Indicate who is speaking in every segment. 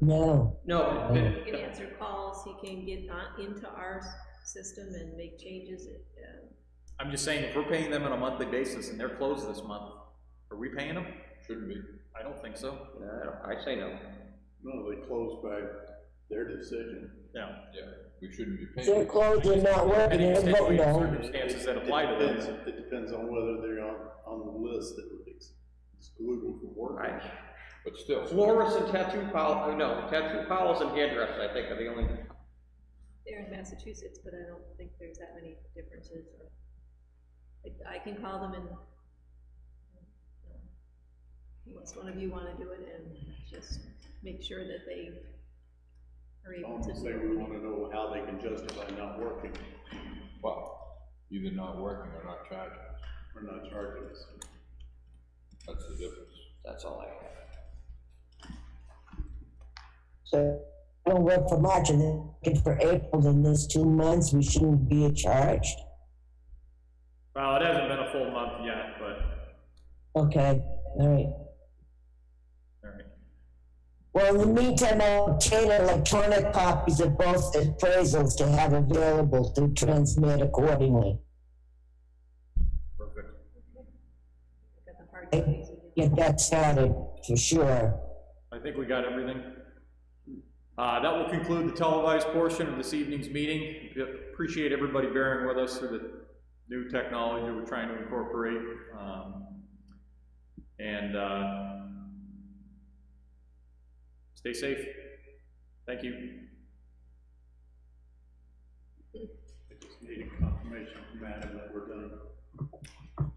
Speaker 1: No,
Speaker 2: No,
Speaker 1: Oh.
Speaker 2: it-
Speaker 3: He can answer calls, he can get on, into our s- system and make changes, uh,
Speaker 2: I'm just saying, if we're paying them on a monthly basis and they're closed this month, are we paying them?
Speaker 4: Shouldn't be.
Speaker 2: I don't think so.
Speaker 5: No, I don't- I say no.
Speaker 6: No, they closed by their decision.
Speaker 2: No.
Speaker 4: Yeah, we shouldn't be paying.
Speaker 1: they're closed and not working,
Speaker 2: Any
Speaker 1: they're voting
Speaker 2: extenuating
Speaker 1: on.
Speaker 2: circumstances that apply to
Speaker 6: It
Speaker 2: them.
Speaker 6: depends- It depends on whether they're on, on the list that would ex- exclude them from working.
Speaker 5: Right.
Speaker 4: But still,
Speaker 5: Florists and tattoo parlors, no, tattoo parlors and hairdressers, I think, are the only,
Speaker 3: they're in Massachusetts, but I don't think there's that many differences, or, like, I can call them and, um, unless one of you wanna do it, and just make sure that they are able to
Speaker 6: Almost
Speaker 3: do
Speaker 6: say
Speaker 3: it.
Speaker 6: we wanna know how they can justify not working
Speaker 4: well, either not working or not charging us,
Speaker 6: or not charging us.
Speaker 4: that's the difference.
Speaker 5: that's all I have.
Speaker 1: So I don't work for March and then looking for April, then there's two months, we shouldn't be charged.
Speaker 2: Well, it hasn't been a full month yet, but.
Speaker 1: Okay, all right. Well, in the meantime, I'll obtain electronic copies of both appraisals to have available to transmit accordingly.
Speaker 2: Perfect.
Speaker 3: Got the hard copies and you-
Speaker 1: Get that started, for sure.
Speaker 2: I think we got everything. Uh, that will conclude the televised portion of this evening's meeting. We Appreciate everybody bearing with us through the new technology we're trying to incorporate. Um, And, uh, stay safe. Thank you.
Speaker 6: I just need a confirmation from Adam that we're done.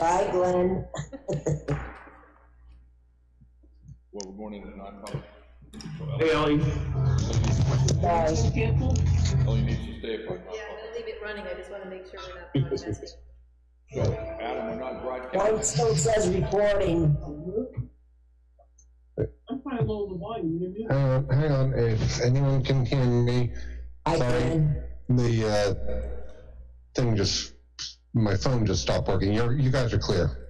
Speaker 1: Bye, Glenn.
Speaker 4: Well, we're going into non-public. So
Speaker 7: Hey, Ellie,
Speaker 1: Bye.
Speaker 4: Ellie- Ellie needs to stay for non-public.
Speaker 3: Yeah, I'm gonna leave it running, I just wanna make sure we're not broadcasting.
Speaker 4: So, Adam, we're not
Speaker 1: Mine
Speaker 4: broadcasting.
Speaker 1: still says recording.
Speaker 7: I'm trying to lower the volume, you do.
Speaker 8: Uh, hang on, if anyone can hear me,
Speaker 1: I
Speaker 8: Sorry.
Speaker 1: can.
Speaker 8: the uh, thing just, my phone just stopped working. You're, you guys are clear.